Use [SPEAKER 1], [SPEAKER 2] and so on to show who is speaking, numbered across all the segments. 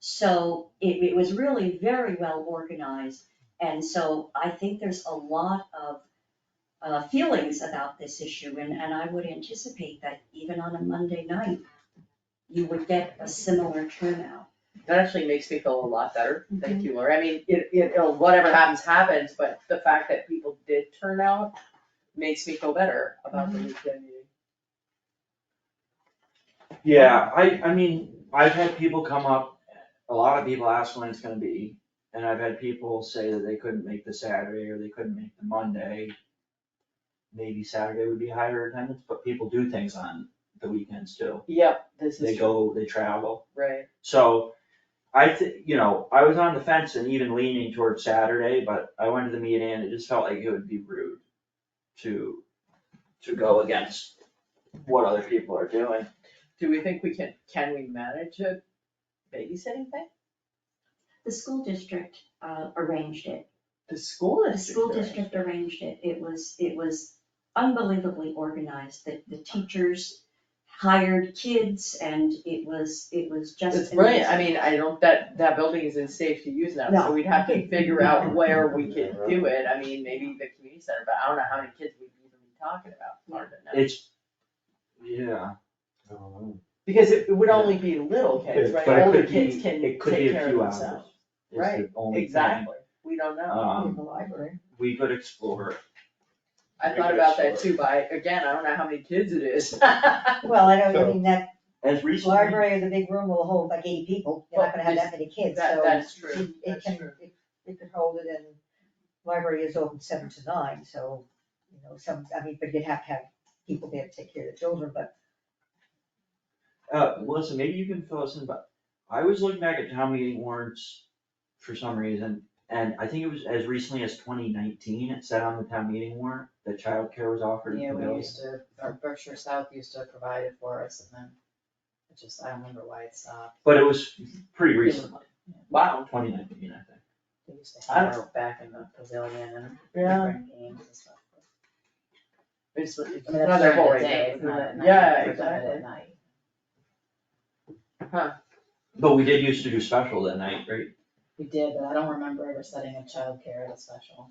[SPEAKER 1] So it, it was really very well organized, and so I think there's a lot of uh, feelings about this issue, and, and I would anticipate that even on a Monday night, you would get a similar turnout.
[SPEAKER 2] That actually makes me feel a lot better,
[SPEAKER 1] Mm-hmm.
[SPEAKER 2] thank you, Lori, I mean, it, it, it'll- whatever happens, happens, but the fact that people did turn out makes me feel better about the
[SPEAKER 1] Mm-hmm.
[SPEAKER 2] weekend meeting.
[SPEAKER 3] Yeah, I, I mean, I've had people come up, a lot of people ask when it's gonna be, and I've had people say that they couldn't make the Saturday or they couldn't make the Monday. Maybe Saturday would be higher attendance, but people do things on the weekends too.
[SPEAKER 2] Yep, this
[SPEAKER 3] They
[SPEAKER 2] is true,
[SPEAKER 3] go, they travel.
[SPEAKER 2] right,
[SPEAKER 3] So I thi- you know, I was on the fence and even leaning towards Saturday, but I went to the meeting and it just felt like it would be rude to, to go against what other people are doing.
[SPEAKER 2] do we think we can, can we manage a babysitting thing?
[SPEAKER 1] The school district uh, arranged it,
[SPEAKER 2] The school
[SPEAKER 1] the
[SPEAKER 2] is.
[SPEAKER 1] school district arranged it, it was, it was unbelievably organized, the, the teachers hired kids, and it was, it was just.
[SPEAKER 2] It's brilliant, I mean, I don't, that, that building is in safe to use now, so
[SPEAKER 1] No.
[SPEAKER 2] we'd have to figure out where we could do it, I mean, maybe the community center, but I don't know how many kids we'd even be talking about, hard to know.
[SPEAKER 3] It's, yeah.
[SPEAKER 2] Because it it would only be little kids, right,
[SPEAKER 3] But it
[SPEAKER 2] older
[SPEAKER 3] could be-
[SPEAKER 2] kids can
[SPEAKER 3] it could be
[SPEAKER 2] take
[SPEAKER 3] a
[SPEAKER 2] care of
[SPEAKER 3] few
[SPEAKER 2] themselves,
[SPEAKER 3] hours, is the
[SPEAKER 2] right,
[SPEAKER 3] only thing.
[SPEAKER 2] exactly, we don't know,
[SPEAKER 3] Um,
[SPEAKER 2] the library.
[SPEAKER 3] We could explore, it.
[SPEAKER 2] I thought
[SPEAKER 3] Maybe
[SPEAKER 2] about that
[SPEAKER 3] that's
[SPEAKER 2] too, but I- again, I don't know how many kids it is.
[SPEAKER 4] Well, I don't,
[SPEAKER 3] So-
[SPEAKER 4] I mean, that
[SPEAKER 3] as recently,
[SPEAKER 4] library or the big room will hold like eighty people, you're not gonna have that many kids, so.
[SPEAKER 2] That- that's true,
[SPEAKER 4] it-
[SPEAKER 2] that's
[SPEAKER 4] It can,
[SPEAKER 2] true.
[SPEAKER 4] it, it can hold it and library is open seven to nine, so, you know, some, I mean, but you'd have to have people there to take care of the children, but
[SPEAKER 3] uh, Melissa, maybe you can fill us in, but I was looking back at town meeting warrants for some reason, and I think it was as recently as twenty nineteen, it said on the town meeting warrant that childcare was offered
[SPEAKER 5] Yeah,
[SPEAKER 3] in the
[SPEAKER 5] we
[SPEAKER 3] village.
[SPEAKER 5] used to, our Berkshire South used to provide it for us and then it just, I don't remember why it stopped.
[SPEAKER 3] But it was pretty recently,
[SPEAKER 2] Wow.
[SPEAKER 3] twenty nineteen, I think.
[SPEAKER 5] They used to
[SPEAKER 2] I
[SPEAKER 5] hang out back in the pavilion and different games and stuff.
[SPEAKER 2] It's, it's
[SPEAKER 5] I mean, that's
[SPEAKER 2] another
[SPEAKER 5] during
[SPEAKER 2] whole
[SPEAKER 5] the day, it's not at night.
[SPEAKER 2] Yeah,
[SPEAKER 5] We've done it
[SPEAKER 2] exactly.
[SPEAKER 5] at night.
[SPEAKER 3] But we did used to do special that night, right?
[SPEAKER 5] We did, but I don't remember ever setting up childcare at a special.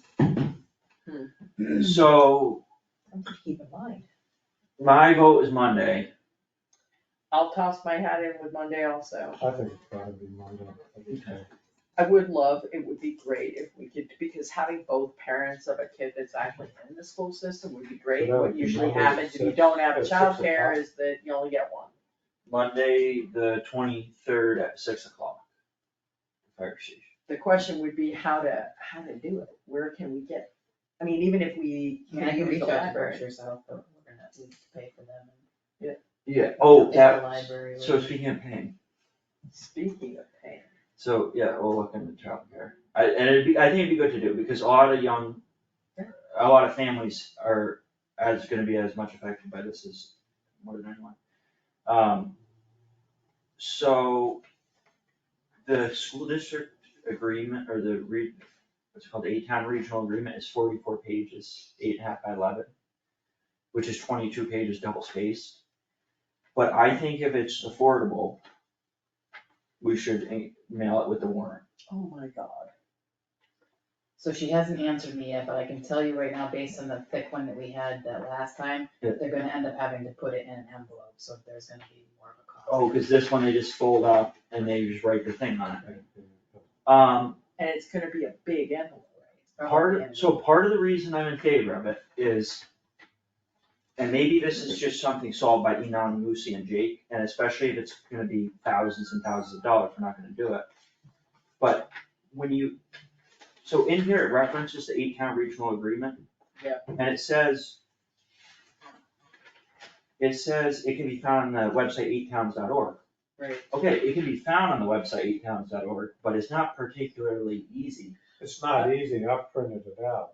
[SPEAKER 3] So
[SPEAKER 4] something to keep in mind.
[SPEAKER 3] my vote is Monday,
[SPEAKER 2] I'll toss my hat in with Monday also.
[SPEAKER 6] I think it's gotta be Monday.
[SPEAKER 2] I would love, it would be great if we could, because having both parents of a kid that's actually in the school system would be great.
[SPEAKER 6] That would
[SPEAKER 2] What
[SPEAKER 6] be
[SPEAKER 2] usually
[SPEAKER 6] Monday at
[SPEAKER 2] happens if you
[SPEAKER 6] six-
[SPEAKER 2] don't have
[SPEAKER 6] at six o'clock.
[SPEAKER 2] childcare is that you only get one.
[SPEAKER 3] Monday, the twenty-third at six o'clock. Fire station.
[SPEAKER 2] The question would be how to, how to do it, where can we get, I mean, even if we
[SPEAKER 5] I mean, I
[SPEAKER 2] can
[SPEAKER 5] can
[SPEAKER 2] use
[SPEAKER 5] reach
[SPEAKER 2] the
[SPEAKER 5] out to
[SPEAKER 2] library.
[SPEAKER 5] Berkshire South, but we're gonna have to pay for them.
[SPEAKER 3] Yeah, oh,
[SPEAKER 5] If the
[SPEAKER 3] that,
[SPEAKER 5] library
[SPEAKER 3] so
[SPEAKER 5] would-
[SPEAKER 3] speaking of pain,
[SPEAKER 2] Speaking of pain,
[SPEAKER 3] so, yeah, we'll look into childcare. I, and it'd be, I think it'd be good to do, because a lot of young, a lot of families are, as gonna be as much affected by this as more than anyone. Um, so, the school district agreement, or the re, what's it called, the eight-town regional agreement is forty-four pages, eight and a half by eleven, which is twenty-two pages double spaced. But I think if it's affordable, we should in- mail it with the warrant.
[SPEAKER 2] oh my god.
[SPEAKER 5] So she hasn't answered me yet, but I can tell you right now, based on the thick one that we had that last time,
[SPEAKER 3] Yeah.
[SPEAKER 5] they're gonna end up having to put it in an envelope, so there's gonna be more of a cost.
[SPEAKER 3] Oh, cause this one they just fold up and they just write the thing on it. Um,
[SPEAKER 2] And it's gonna be a big envelope,
[SPEAKER 5] It's probably
[SPEAKER 3] part,
[SPEAKER 5] gonna
[SPEAKER 3] so part of the reason I'm in favor of it is, and maybe this is just something solved by Enon, and Lucy and Jake, and especially if it's gonna be thousands and thousands of dollars, we're not gonna do it. But when you, so in here it references the eight town regional agreement.
[SPEAKER 2] Yeah.
[SPEAKER 3] And it says, it says it can be found on the website eighttowns.org.
[SPEAKER 2] right?
[SPEAKER 3] Okay, it can be found on the website eighttowns.org, but it's not particularly easy.
[SPEAKER 6] It's not easy, I printed it out.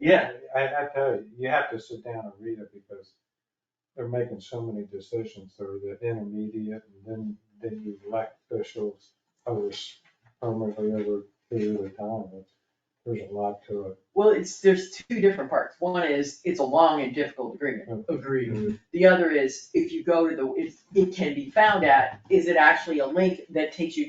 [SPEAKER 3] Yeah.
[SPEAKER 6] I, I tell you, you have to sit down and read it because they're making so many decisions, they're the intermediate, and then, then you elect officials over, s- permanently over a period of time. It's- There's a lot to
[SPEAKER 2] Well, it's, there's two different parts. One is, it's a long and difficult agreement.
[SPEAKER 6] it.
[SPEAKER 2] Agreed. The other is, if you go to the, if, it can be found at, is it actually a link that takes you